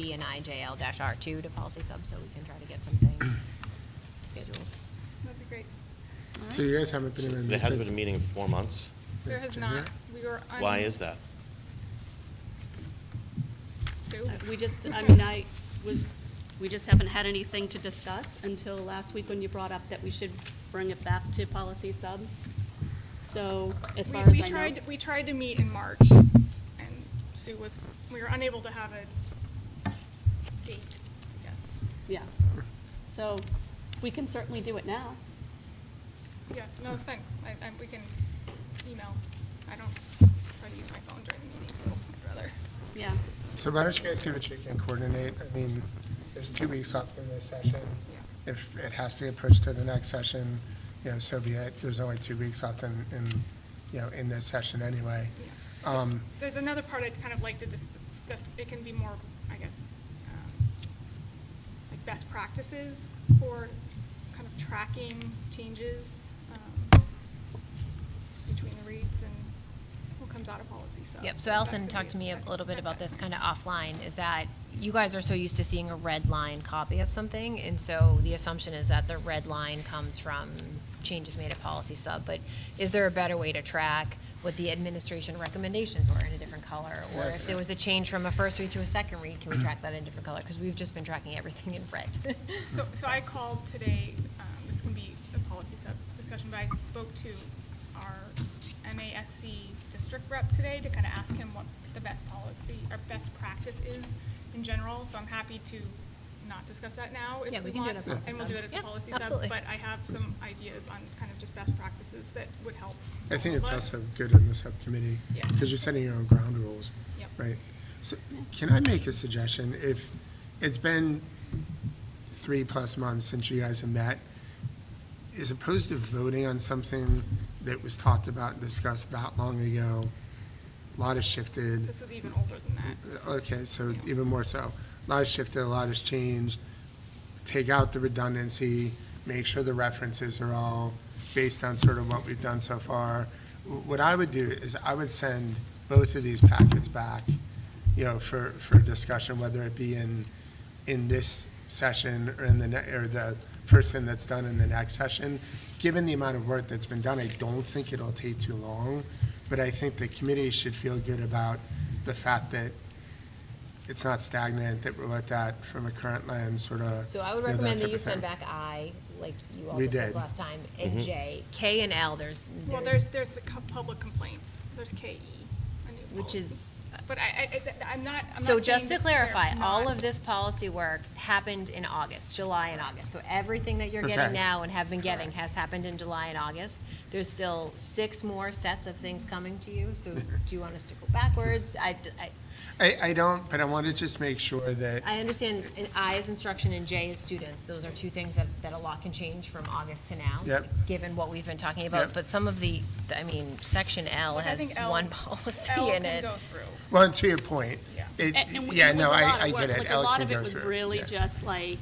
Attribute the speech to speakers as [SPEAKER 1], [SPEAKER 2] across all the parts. [SPEAKER 1] B and IJL-R2 to policy sub, so we can try to get something scheduled.
[SPEAKER 2] That'd be great.
[SPEAKER 3] So you guys haven't been in a
[SPEAKER 4] There
[SPEAKER 3] meeting
[SPEAKER 4] hasn't been
[SPEAKER 3] since-
[SPEAKER 4] a meeting in four months.
[SPEAKER 2] There has
[SPEAKER 3] Yeah.
[SPEAKER 2] not, we were. un-
[SPEAKER 4] Why is that?
[SPEAKER 2] Sue?
[SPEAKER 5] Uh, We just, I mean, I was, we just haven't had anything to discuss until last week when you brought up that we should bring it back to policy sub. So as
[SPEAKER 2] We-
[SPEAKER 5] far as
[SPEAKER 2] we
[SPEAKER 5] I know.
[SPEAKER 2] tried- We tried to meet in March, and Sue was, we were unable to have a date, I guess.
[SPEAKER 5] Yeah. So we can certainly do it now.
[SPEAKER 2] Yeah, no, it's fine. I, I, we can email. I don't try to use my phone during the meeting, so I'd rather.
[SPEAKER 5] Yeah.
[SPEAKER 3] So why don't you guys give a check and coordinate? I mean, there's two weeks left in this session.
[SPEAKER 2] Yeah.
[SPEAKER 3] If it has to get pushed to the next session, you know, so be it. There's only two weeks left in, in, you know, in this session anyway. Um,
[SPEAKER 2] There's another part I'd kind of like to dis- discuss, it can be more, I guess, um, like best practices for kind of tracking changes um, between the reads and what comes out of policy, so.
[SPEAKER 1] Yep, so Allison talked to me a little bit about this kind of offline, is that you guys are so used to seeing a red line copy of something, and so the assumption is that the red line comes from changes made at policy sub, but is there a better way to track what the administration recommendations were in a different color? Or if there was a change from a first read to a second read, can we track that in a different color? Because we've just been tracking everything in red.
[SPEAKER 2] So, so I called today, um, this can be a policy sub discussion, but I spoke to our MASC district rep today to kind of ask him what the best policy or best practice is in general, so I'm happy to not discuss that now
[SPEAKER 1] Yeah,
[SPEAKER 2] if
[SPEAKER 1] we
[SPEAKER 2] we
[SPEAKER 1] can do it at
[SPEAKER 2] want.
[SPEAKER 1] policy
[SPEAKER 2] And we'll
[SPEAKER 1] sub.
[SPEAKER 2] do it at
[SPEAKER 1] Yeah,
[SPEAKER 2] the policy sub,
[SPEAKER 1] absolutely.
[SPEAKER 2] but I have some ideas on kind of just best practices that would help.
[SPEAKER 3] I think
[SPEAKER 2] all of
[SPEAKER 3] it's
[SPEAKER 2] us.
[SPEAKER 3] also good in the subcommittee.
[SPEAKER 2] Yeah.
[SPEAKER 3] Because you're setting your own ground rules.
[SPEAKER 2] Yep.
[SPEAKER 3] Right? So can I make a suggestion? If, it's been three-plus months since you guys have met, as opposed to voting on something that was talked about and discussed that long ago, a lot has shifted.
[SPEAKER 2] This was even older than that.
[SPEAKER 3] Okay, so even more so. A lot has shifted, a lot has changed. Take out the redundancy, make sure the references are all based on sort of what we've done so far. Wh- What I would do is I would send both of these packets back, you know, for, for discussion, whether it be in, in this session or in the, ne- or the first thing that's done in the next session. Given the amount of work that's been done, I don't think it'll take too long, but I think the committee should feel good about the fact that it's not stagnant, that we're looked at from a current lens, sort of.
[SPEAKER 1] So I would recommend that you send back I, like you all
[SPEAKER 3] We
[SPEAKER 1] discussed
[SPEAKER 3] did.
[SPEAKER 1] last time, and J. K and L, there's,
[SPEAKER 2] Well,
[SPEAKER 1] there's
[SPEAKER 2] there's, there's the co- public complaints, there's KE, a new
[SPEAKER 1] Which is-
[SPEAKER 2] policy. But I, I, I'm not, I'm not
[SPEAKER 1] So just
[SPEAKER 2] saying
[SPEAKER 1] to
[SPEAKER 2] that they're
[SPEAKER 1] clarify, all
[SPEAKER 2] not.
[SPEAKER 1] of this policy work happened in August, July and August. So everything that you're getting
[SPEAKER 3] Okay.
[SPEAKER 1] now and have been getting has happened in July and August. There's still six more sets of things coming to you, so do you want us to go backwards? I, I-
[SPEAKER 3] I, I don't, but I want to just make sure that,
[SPEAKER 1] I understand an I is instruction and J is students. Those are two things that, that a lot can change from August to now.
[SPEAKER 3] Yep.
[SPEAKER 1] Given what we've been talking
[SPEAKER 3] Yep.
[SPEAKER 1] about, but some of the, I mean, section L
[SPEAKER 2] Like, I
[SPEAKER 1] has
[SPEAKER 2] think L-
[SPEAKER 1] one policy
[SPEAKER 2] L
[SPEAKER 1] in
[SPEAKER 2] can
[SPEAKER 1] it.
[SPEAKER 2] go through.
[SPEAKER 3] well, and to your point.
[SPEAKER 2] Yeah.
[SPEAKER 3] it-
[SPEAKER 5] And- and we-
[SPEAKER 3] Yeah,
[SPEAKER 5] it was
[SPEAKER 3] no,
[SPEAKER 5] a
[SPEAKER 3] I,
[SPEAKER 5] lot of
[SPEAKER 3] I
[SPEAKER 5] work.
[SPEAKER 3] get it. Alec
[SPEAKER 5] Like, A lot
[SPEAKER 3] can
[SPEAKER 5] of it
[SPEAKER 3] go
[SPEAKER 5] was
[SPEAKER 3] through
[SPEAKER 5] really
[SPEAKER 3] Yeah.
[SPEAKER 5] just like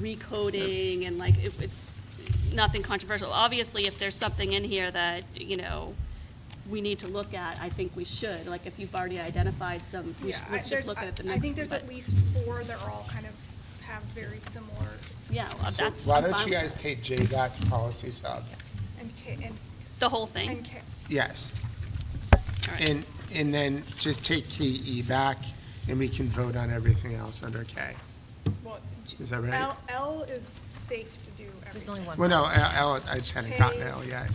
[SPEAKER 5] recoding and like, it- it's nothing controversial. Obviously, if there's something in here that, you know, we need to look at, I think we should. Like, if you've already identified some, we
[SPEAKER 2] Yeah,
[SPEAKER 5] should-
[SPEAKER 2] I-
[SPEAKER 5] let's just
[SPEAKER 2] there's-
[SPEAKER 5] look
[SPEAKER 2] I-
[SPEAKER 5] at it the
[SPEAKER 2] I
[SPEAKER 5] next.
[SPEAKER 2] think there's
[SPEAKER 5] one,
[SPEAKER 2] at
[SPEAKER 5] but-
[SPEAKER 2] least four that are all kind of have very similar,
[SPEAKER 5] Yeah, well,
[SPEAKER 3] So
[SPEAKER 5] uh, that's.
[SPEAKER 3] why
[SPEAKER 5] I'm
[SPEAKER 3] don't
[SPEAKER 5] fine
[SPEAKER 3] you
[SPEAKER 5] with
[SPEAKER 3] guys
[SPEAKER 5] that.
[SPEAKER 3] take J back to policy sub?
[SPEAKER 2] and K, and.
[SPEAKER 5] The whole thing.
[SPEAKER 2] And K,
[SPEAKER 3] Yes.
[SPEAKER 5] All right.
[SPEAKER 3] And, and then just take KE back and we can vote on everything else under K.
[SPEAKER 2] well. G-
[SPEAKER 3] Is that right?
[SPEAKER 2] L, L is safe to do everything.
[SPEAKER 1] There's only one
[SPEAKER 3] Well, no,
[SPEAKER 1] policy.
[SPEAKER 3] L, L- I just hadn't gotten L yet.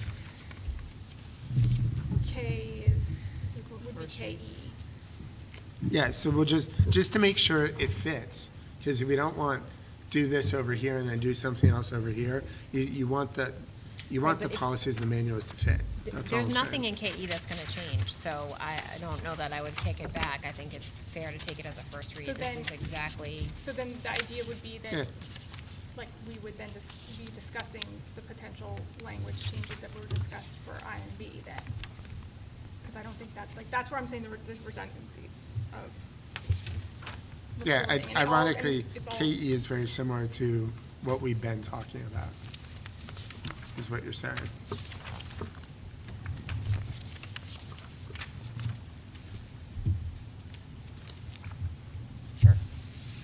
[SPEAKER 2] K is, would be KE.
[SPEAKER 3] Yeah, so we'll just, just to make sure it fits, because we don't want, do this over here and then do something else over here. You, you want the, you want
[SPEAKER 1] Right, but
[SPEAKER 3] the
[SPEAKER 1] if-
[SPEAKER 3] policies and the manuals to fit. That's all I'm
[SPEAKER 1] There's nothing
[SPEAKER 3] saying.
[SPEAKER 1] in KE that's gonna change, so I, I don't know that I would kick it back. I think it's fair to take it as a first read.
[SPEAKER 2] So
[SPEAKER 1] This
[SPEAKER 2] then-
[SPEAKER 1] is exactly,
[SPEAKER 2] So then the idea would be
[SPEAKER 3] Yeah.
[SPEAKER 2] that, like, we would then just be discussing the potential language changes that were discussed for I and B then. Because I don't think that, like, that's where I'm saying the re- the redundancies of. reporting,
[SPEAKER 3] Yeah, I-
[SPEAKER 2] and it all- and
[SPEAKER 3] ironically, E
[SPEAKER 2] it's all-
[SPEAKER 3] KE is very similar to what we've been talking about, is what you're saying.